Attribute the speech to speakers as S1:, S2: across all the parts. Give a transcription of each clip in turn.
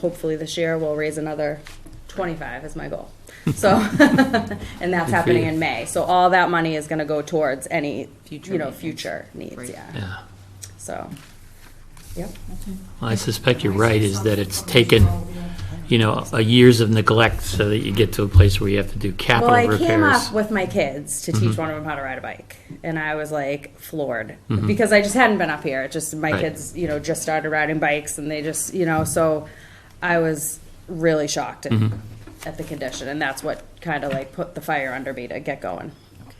S1: hopefully this year we'll raise another 25 is my goal. So, and that's happening in May. So all that money is going to go towards any,
S2: Future
S1: you know,
S2: maintenance.
S1: future
S2: Right.
S1: needs, yeah.
S3: Yeah,
S1: So, yep.
S3: well, I suspect you're right, is that it's taken, you know, a years of neglect so that you get to a place where you have to do
S1: Well,
S3: capital
S1: I came up
S3: repairs. Mm-hmm.
S1: with my kids to teach one of them how to ride a bike, and I was like floored because I just hadn't been up here. It just my
S3: Mm-hmm. Right.
S1: kids, you know, just started riding bikes, and they just, you know, so I was really shocked at,
S3: Mm-hmm.
S1: at the condition, and that's what kind of like put the fire under me to get going.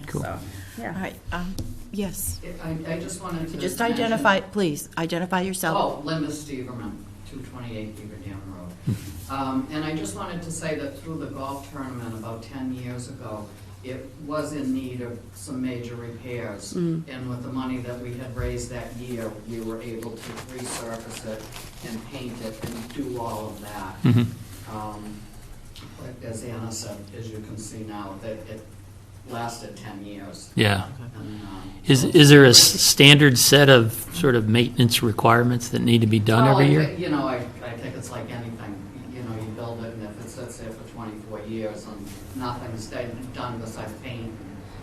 S3: Cool.
S1: So, yeah.
S2: All right, um, yes.
S4: I, I just wanted to.
S2: Just
S4: mention-
S2: identify, please, identify yourself.
S4: Oh, Linda Steverman, 228 Beaver Dam Road. Um, And I just wanted to say that through the golf tournament about 10 years ago, it was in need of some major repairs.
S2: Mm.
S4: And with the money that we had raised that year, we were able to resurface it and paint it and do all of that.
S3: Mm-hmm.
S2: Mm.
S4: Um, But as Anna said, as you can see now, that it lasted 10 years.
S3: Yeah.
S4: And, um,
S3: Is, is there a s- standard set of sort of maintenance requirements that need to be done
S4: Well,
S3: every
S4: I
S1: Oh,
S3: year?
S4: thi- You know, I, I think it's like anything, you know, you build it, and if it sits there for twenty-four years and nothing's done done besides paint, and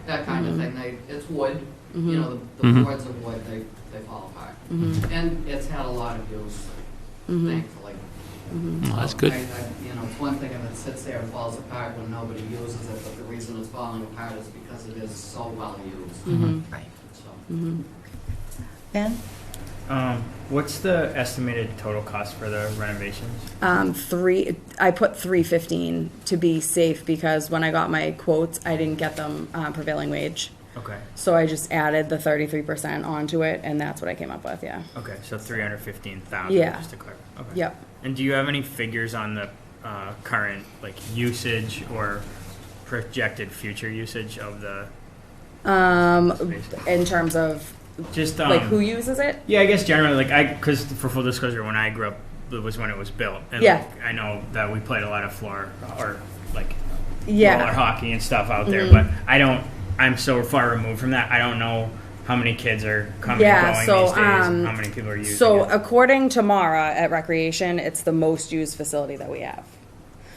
S4: that kind of
S3: Mm-hmm.
S4: thing, they, it's wood, you know, the- the
S3: Mhm.
S4: boards of wood, they, they fall apart.
S3: Mm-hmm.
S4: And it's had a lot of use, thankfully.
S3: Well, Mm-hmm. Oh, that's
S4: So
S3: good.
S4: I- I- You know, it's one thing if it sits there and falls apart when nobody uses it, but the reason it's falling apart is because it is so well used,
S3: Mm-hmm.
S2: Right.
S4: so.
S2: Ben?
S5: Um, what's the estimated total cost for the renovations?
S1: Um, three, I put three fifteen to be safe because when I got my quotes, I didn't get them uh, prevailing wage,
S5: Okay,
S1: so I just added the thirty three percent onto it, and that's what I came up with. Yeah.
S5: okay, so three hundred fifteen thousand.
S1: Yeah.
S5: Just to clarify. Okay.
S1: Yep.
S5: And do you have any figures on the uh, current like usage or projected future usage of the
S1: Um,
S5: space?
S1: in terms of
S5: Just um,
S1: like who uses it.
S5: Yeah, I guess generally, like I, because for full disclosure, when I grew up, it was when it was built, and
S1: Yeah.
S5: like, I know that we played a lot of floor or like
S1: Yeah. Mm-hmm.
S5: roller hockey and stuff out there, but I don't. I'm so far removed from that. I don't know how many kids are coming
S1: Yeah,
S5: and going
S1: so,
S5: these days.
S1: um,
S5: how many people are using?
S1: So uh,
S5: it
S1: according to Mara at Recreation, it's the most used facility that we have.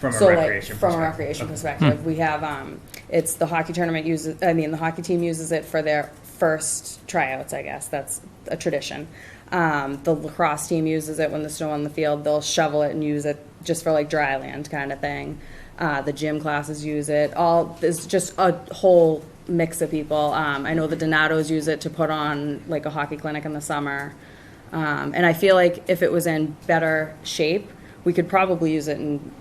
S5: from
S1: so
S5: a recreation
S1: like from a
S5: perspective.
S1: recreation
S5: Okay.
S1: perspective, we have um, it's the hockey tournament uses. I mean, the hockey team uses it for their first tryouts. I guess that's a tradition. Um, the lacrosse team uses it when the snow on the field. They'll shovel it and use it just for like dry land kind of thing. Uh, the gym classes use it. All there's just a whole mix of people. Um, I know the Donatos use it to put on like a hockey clinic in the summer. Um, and I feel like if it was in better shape, we could probably use it in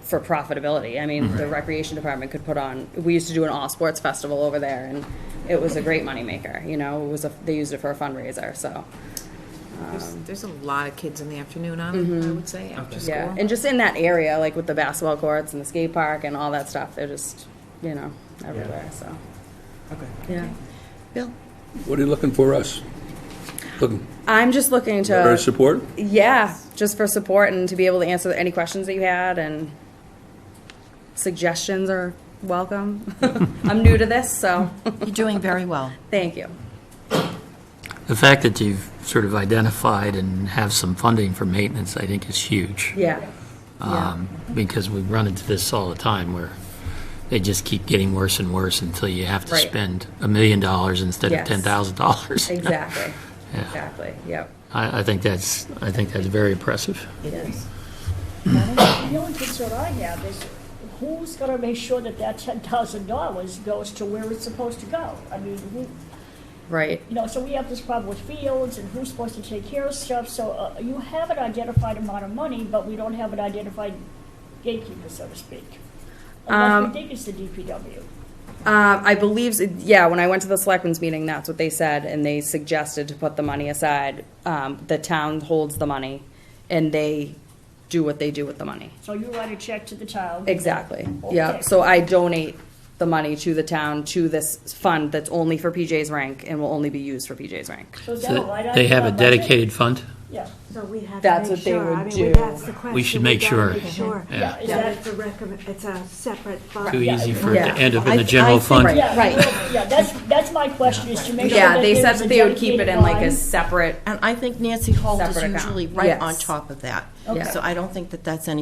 S1: for profitability. I mean, the recreation department could put on. We used to do an all sports festival over there, and it was a great moneymaker. You know, it was a, they used it for a fundraiser. So
S6: There's, there's a lot of kids in the afternoon on it, I would say, after school.
S1: yeah, and just in that area, like with the basketball courts and the skate park and all that stuff, they're just you know everywhere. So okay, yeah.
S2: Bill?
S7: What are you looking for us? Looking
S1: I'm just looking
S7: for our
S1: to,
S7: support?
S1: yeah, just for support and to be able to answer any questions that you had and suggestions are welcome. I'm new to this, so
S2: You're doing very well.
S1: thank you.
S3: The fact that you've sort of identified and have some funding for maintenance, I think is huge.
S1: Yeah.
S3: Um, Because we run into this all the time where they just keep getting worse and worse until you have to
S1: Right.
S3: spend a million dollars instead of
S1: Yes.
S3: ten thousand dollars.
S1: Exactly.
S3: Yeah.
S1: Exactly. Yep.
S3: I, I think that's, I think that's very impressive.
S2: It is.
S8: The only concern I have is who's gonna make sure that that ten thousand dollars goes to where it's supposed to go? I mean, who,
S1: Right.
S8: you know, so we have this problem with fields and who's supposed to take care of stuff, so, uh, you have an identified amount of money, but we don't have an identified gatekeeper, so to speak. Unless
S1: Um,
S8: we think it's the DPW.
S1: Um, I believe, yeah, when I went to the selectmen's meeting, that's what they said, and they suggested to put the money aside. Um, the town holds the money, and they do what they do with the money.
S8: So you write a check to the town.
S1: Exactly. Yeah.
S8: Okay.
S1: So I donate the money to the town, to this fund that's only for PJ's rank and will only be used for PJ's rank.
S8: So is that a line
S3: So
S8: item
S3: They have
S8: in
S3: a
S8: our budget?
S3: dedicated fund?
S8: Yeah,
S9: So we have
S1: That's
S9: to
S1: what
S9: make
S1: they
S9: sure, I
S1: would
S9: mean,
S1: do.
S9: that's the question.
S3: We should make
S9: gotta
S3: sure.
S9: Make sure.
S3: Yeah.
S9: That
S8: is that,
S9: it's a recommend, it's a separate fund.
S3: Too easy for it
S2: Yeah.
S3: to end up in
S2: I-
S3: the general
S2: I think-
S3: fund.
S8: yeah,
S2: Right.
S8: well, yeah, that's, that's my question, is to make sure
S1: Yeah,
S8: that
S1: they said
S8: there's
S1: that
S8: a
S1: they would keep it
S8: dedicated
S1: in like a
S8: line.
S1: separate
S2: And I think Nancy Holt is
S1: Separate account.
S2: usually right on
S1: Yes.
S2: top of that.
S1: Okay.
S2: So I don't think that that's any